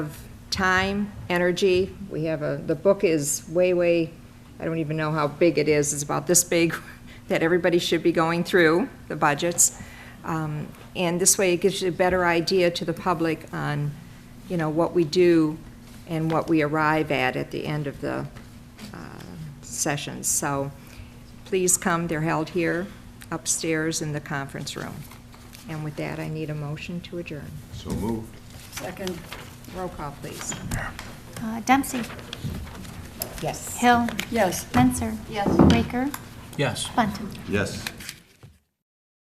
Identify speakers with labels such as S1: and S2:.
S1: time, energy. We have a, the book is way, way, I don't even know how big it is, it's about this big, that everybody should be going through, the budgets. Um, And this way, it gives you a better idea to the public on, you know, what we do and what we arrive at at the end of the uh, sessions. So please come, they're held here upstairs in the conference room. And with that, I need a motion to adjourn.
S2: So moved.
S3: Second.
S1: Roll call, please.
S4: Uh, Dempsey,
S1: Yes.
S4: Hill,
S3: Yes.
S4: Menzer. Yes. Baker,
S5: Yes.
S4: Bunting.
S2: Yes.